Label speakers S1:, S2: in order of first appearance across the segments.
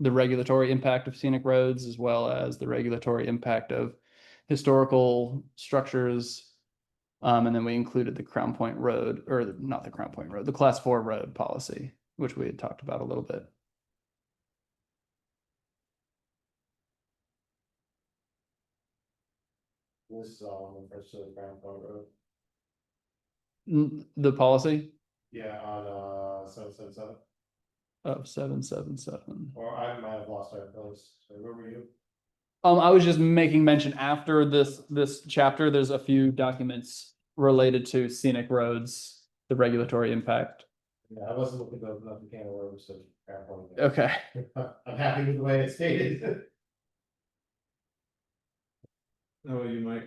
S1: the regulatory impact of scenic roads as well as the regulatory impact of historical structures. Um, and then we included the Crown Point Road, or the- not the Crown Point Road, the Class Four Road policy, which we had talked about a little bit.
S2: This is all on the first of the Grand Point Road.
S1: N- The policy
S2: Yeah, on uh seven seven seven,
S1: of seven, seven, seven.
S2: or I might have lost our place, so where were you?
S1: Um, I was just making mention after this, this chapter, there's a few documents related to scenic roads, the regulatory impact.
S2: Yeah, I wasn't looking to open up the can of worms of Grand Point. Road.
S1: Okay,
S2: I'm happy with the way it's stated.
S3: Oh, you might,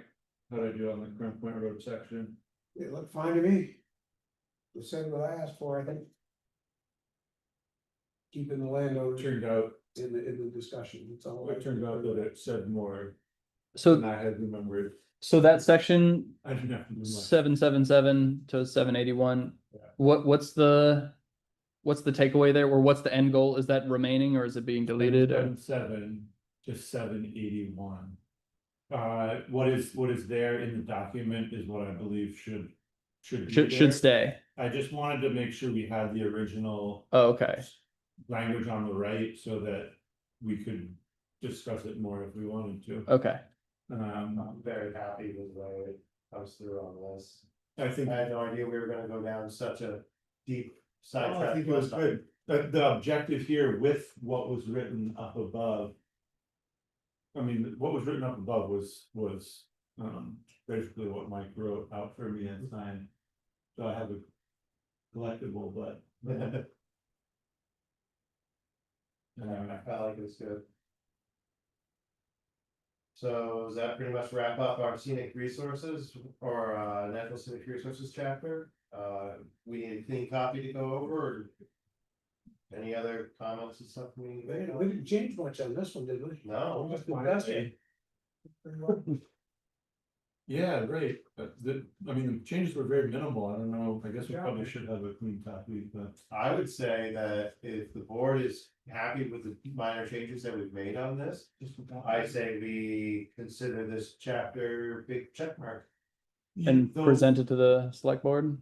S3: how to do on the Grand Point Road section.
S4: It looked fine to me. We said what I asked for, I think. Keeping the
S3: It
S4: landowner
S3: Turned out,
S4: in the, in the discussion, that's all.
S3: it turned out that it said more than
S1: so,
S3: I had remembered.
S1: so that section
S3: I didn't have to do much.
S1: seven, seven, seven to seven eighty-one.
S3: Yeah.
S1: What, what's the, what's the takeaway there, or what's the end goal? Is that remaining or is it being deleted? or-
S3: Seven, seven to seven eighty-one. Uh, what is, what is there in the document is what I believe should, should be
S1: Should, should
S3: there.
S1: stay.
S3: I just wanted to make sure we had the original
S1: Oh, okay,
S3: language on the right so that we could discuss it more if we wanted to.
S1: okay.
S3: Um,
S2: I'm very happy with the way it comes through on this.
S3: I think.
S2: I had no idea we were gonna go down such a deep
S3: Oh, I
S2: sidetrack.
S3: think it was
S2: last time.
S3: good. The, the objective here with what was written up above. I mean, what was written up above was, was, um, basically what Mike wrote out for me and signed. So I have a collectible, but.
S2: I
S3: Uh,
S2: felt like it was good. So does that pretty much wrap up our scenic resources or uh natural scenic resources chapter? Uh, we need a clean copy to go over or any other comments or something?
S4: We didn't, we didn't change much on this one, did we?
S2: No.
S4: Just the best.
S3: yeah, right, but the, I mean, the changes were very minimal, I don't know, I guess we probably should have a clean copy, but.
S2: I would say that if the board is happy with the minor changes that we've made on this, I say we consider this chapter big checkmark.
S1: And
S3: Though-
S1: present it to the select board?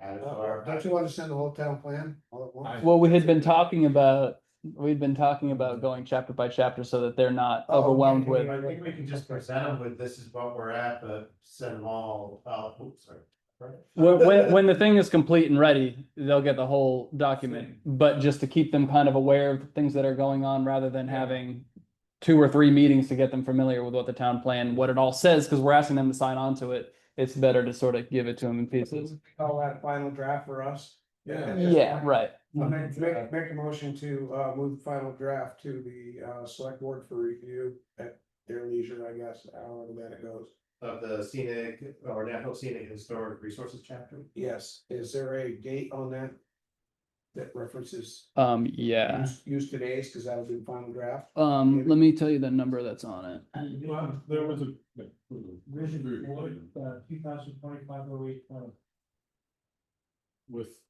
S2: Add it to
S4: Uh,
S2: our-
S4: Don't you wanna send the whole town plan all at once?
S1: Well, we had been talking about, we'd been talking about going chapter by chapter so that they're not
S4: Oh,
S1: overwhelmed
S4: yeah,
S1: with,
S4: yeah,
S2: I think we can just present them with this is what we're at, but send them all, out. oops, sorry.
S1: when, when, when the thing is complete and ready, they'll get the whole document. But just to keep them kind of aware of the things that are going on rather than having two or three meetings to get them familiar with what the town plan, what it all says, because we're asking them to sign on to it. It's better to sort of give it to them in pieces.
S4: Call that final draft for us.
S3: Yeah.
S1: Yeah, right.
S4: I'll Make, make, make a motion to, uh, move the final draft to the, uh, select board for review at their leisure, I guess, however that it goes.
S2: Of the scenic or natural scenic historic resources chapter.
S4: Yes, is there a date on that? That references
S1: Um, yeah.
S4: use- use today's, cause that'll be the final draft.
S1: Um, let me tell you the number that's on it.
S3: Well, there was a.
S2: uh, two thousand twenty-five oh eight twenty.
S3: With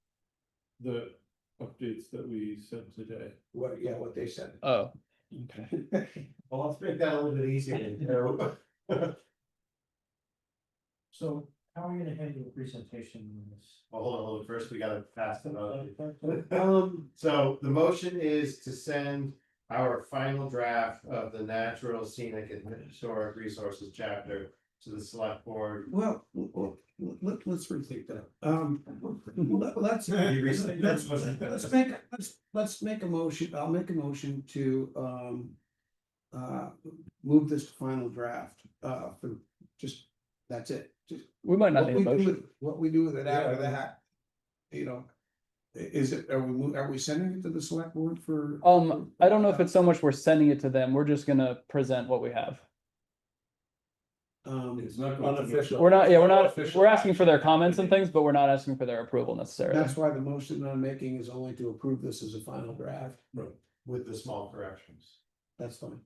S3: the updates that we sent today.
S4: What, yeah, what they said.
S1: Oh, okay.
S2: Well, let's make that a little bit easier. you know.
S5: So how are you gonna handle the presentation on this?
S2: Well, hold on, hold on, first we gotta pass them out.
S4: Um,
S2: So the motion is to send our final draft of the natural scenic and historic resources chapter to the select board.
S4: well, well, let, let's rethink that. Um, let- let's,
S2: You recently-
S4: let's, let's make, let's, let's make a motion, I'll make a motion to, um. Uh, move this to final draft, uh, for just, that's it, just
S1: We might not need
S4: What
S1: a
S4: we do
S1: motion.
S4: with, what we do with it after
S3: Yeah.
S4: that, you know. i- Is it, are we, mo- are we sending it to the select board for?
S1: Um, I don't know if it's so much we're sending it to them, we're just gonna present what we have.
S4: Um,
S3: not unofficial.
S1: We're not, yeah, we're not, we're asking for their comments and things, but we're not asking for their approval necessarily.
S4: that's why the motion that I'm making is only to approve this as a final draft,
S2: With the small corrections.
S4: that's fine.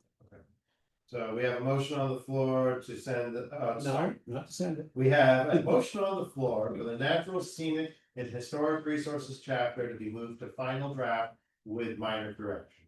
S2: So we have a motion on the floor to send, uh,
S4: No, not to send it,
S2: We have a motion on the floor for the natural scenic and historic resources chapter to be moved to final draft with minor corrections.